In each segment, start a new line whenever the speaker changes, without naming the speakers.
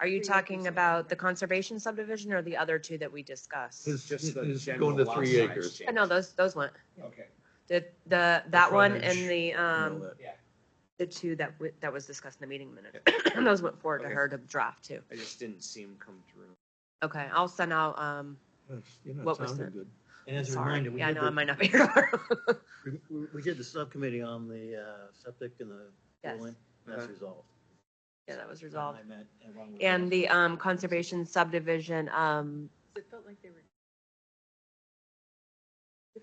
Are you talking about the conservation subdivision or the other two that we discussed?
It's
Just
just
the
is
general
going to
lot
three
size
acres.
change.
Uh, No, those, those went,
Okay,
the, the, that one
frontage,
and the,
You
um,
know that.
yeah,
the two that, w- that was discussed in the meeting minute. Those went forward to
Okay.
her to draft too.
I just didn't see him come through.
Okay, I'll send out, um,
That's- You're
What
not
was
sounding
the-
good.
And as a
sorry,
reminder, we
yeah, I
did,
know I
the-
might not be here tomorrow.
we- we- we did the subcommittee on the uh, septic and the
Yes.
cooling. That's
Uh-huh.
resolved.
Yeah, that was
Tom
resolved.
and I met, and Ron was
And
there.
the, um, conservation subdivision, um,
It felt like they were.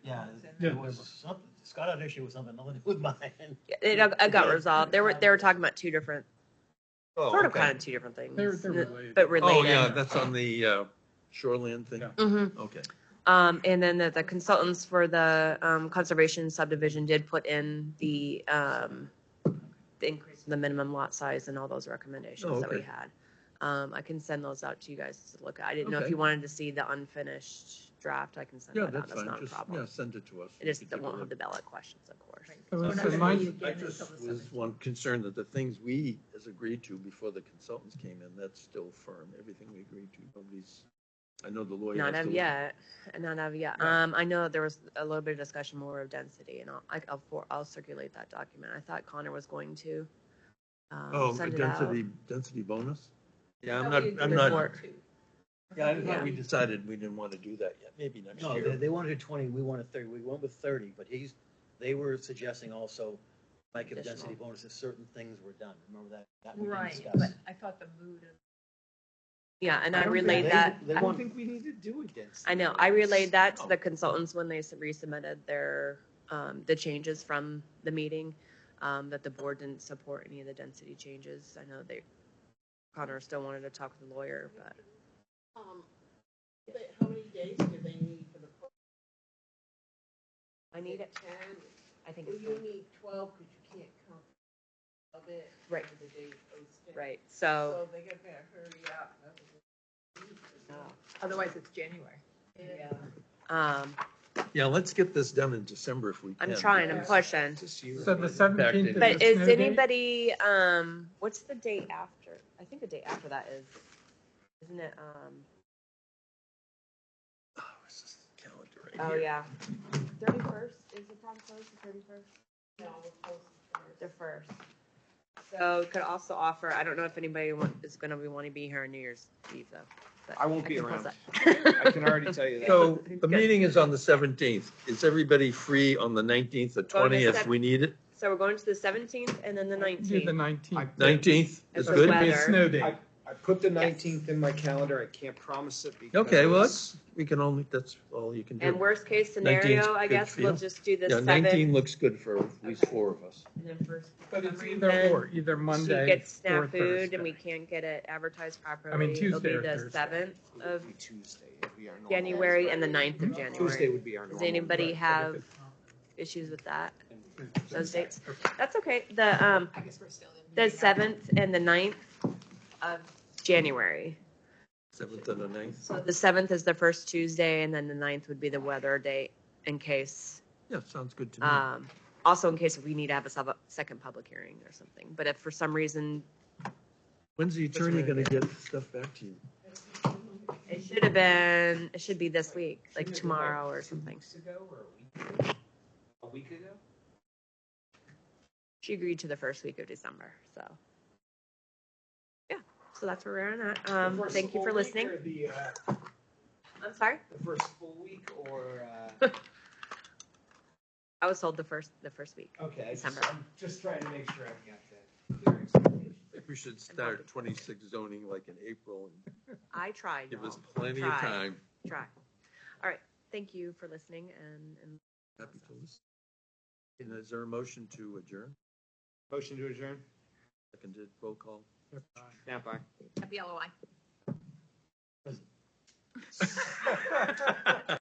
Yeah, it was something, Scott had issue with something, nothing to do with mine.
it, it got resolved. They were, they were talking about two different,
Oh,
sort of
okay.
kind of two different things.
They're, they're related.
But
Oh, yeah,
related.
that's on the uh, shoreland thing.
Yeah.
hmm
Okay.
Um, and then the, the consultants for the, um, conservation subdivision did put in the, um, the increase in the minimum lot size and all those
Oh,
recommendations that we
okay.
had. Um, I can send those out to you guys to look at. I didn't know if
Okay.
you wanted to see the unfinished draft. I can send
Yeah,
that out.
that's
That's
fine.
not a
Just, yeah,
problem.
send it to us.
It just,
We
they
can take a
won't have
look.
the ballot questions, of course.
Oh,
Well,
We're
that's
not gonna
remind-
meet
I
again
just
until the
was
summer.
one concerned that the things we has agreed to before the consultants came in, that's still firm. Everything we agreed to, nobody's, I know the lawyer.
Not
has to
of
look-
yet, not of yet.
Yeah.
Um, I know there was a little bit of discussion more of density and I'll, I- I'll, for- I'll circulate that document. I thought Connor was going to. um,
Oh,
send it
density,
out.
density bonus? Yeah,
That
I'm
we
not, I'm
agreed
not,
Report.
to.
Yeah, I
Yeah.
thought
we
we
decided we didn't want to do that yet. Maybe next
No, they,
year.
they wanted twenty, we wanted thirty, we went with thirty, but he's, they were suggesting also, like, if density
Additional.
bonuses, certain things were done, remember that? that we didn't
Right,
discuss.
but I thought the mood of.
Yeah, and
I
I
don't
relayed
think-
that,
They
I
want-
don't think we need to do a density.
I know, I relayed that to
Oh.
the consultants when they s- resubmitted their, um, the changes from the meeting. Um, that the board didn't support any of the density changes. I know they, Connor still wanted to talk with the lawyer, but
Um, but how many days do they need for the?
I need it,
Ten,
I think
well,
it's
you
fine.
need twelve, cause you can't count of it.
Right.
for The day it goes down.
right, so.
So they got to hurry up.
Otherwise, it's January.
Yeah.
Um,
Yeah, let's get this done in December if we can.
I'm trying, I'm
Yeah.
pushing.
Just you
So the
remember.
17th
Back
is
in.
the
But is
snow date?
anybody, um, what's the date after? I think the date after that is, isn't it, um,
Oh, this is the calendar right
oh,
here.
yeah. Thirty-first, is the prom closed the thirty-first?
No, we'll post it first.
The first. So could also offer, I don't know if anybody want, is gonna be wanting to be here on New Year's Eve though. but
I won't be
can post
around.
that.
I can already tell you that.
So the
Good.
meeting is on the seventeenth. Is everybody free on the nineteenth, the
Well, the
twentieth?
sev-
We need it.
So we're going to the seventeenth and then the
Do
nineteenth.
the nineteenth.
Nineteenth
It's
is
the
good.
weather.
It's snow day.
I put the nineteenth in my calendar. I can't promise it because.
Okay, well, that's, we can only, that's all you can
And
do.
worst case
19th 's
scenario, I
good
guess,
for
we'll
you.
just do the
Yeah,
seventh.
nineteen looks good for at least
Okay.
four of us.
and then first-
But it's
for
either
reason,
or, either
She
Monday
gets
or
snack food and we
Thursday.
can't get it advertised properly.
Tuesday or
It'll be the
Thursday.
seventh
It'll
of
be Tuesday. It'll be our normal-
January and the ninth
Mm-hmm.
of
Tuesday
January.
would be our normal.
Does anybody have issues with that, those dates? That's okay, the, um,
I guess we're still in.
the seventh and the ninth of January.
Seventh and the ninth.
So the seventh is the first Tuesday and then the ninth would be the weather date in case,
Yeah, sounds good to
Mm-hmm.
me.
um, also in case we need to have a sub- second public hearing or something. But if for some reason,
When's the attorney gonna get stuff back to you?
it should have been, it should be this week, like tomorrow or something.
Two weeks ago or a week ago? A week ago?
she agreed to the first week of December. So, yeah, so that's where we're at. Um, thank you for listening.
The uh,
I'm sorry,
first full week or, uh,
I was told the first the first week.
okay,
I just- December.
I'm just trying to make sure I've got that.
We should start twenty-six zoning like in April and
I tried.
give us
y'all.
plenty of
Try.
time.
Try. All right. Thank you for listening. And, and
Happy to listen. And is there a motion to adjourn?
Motion to adjourn?
Seconded, roll call.
Snap
Happy LOI.
aye.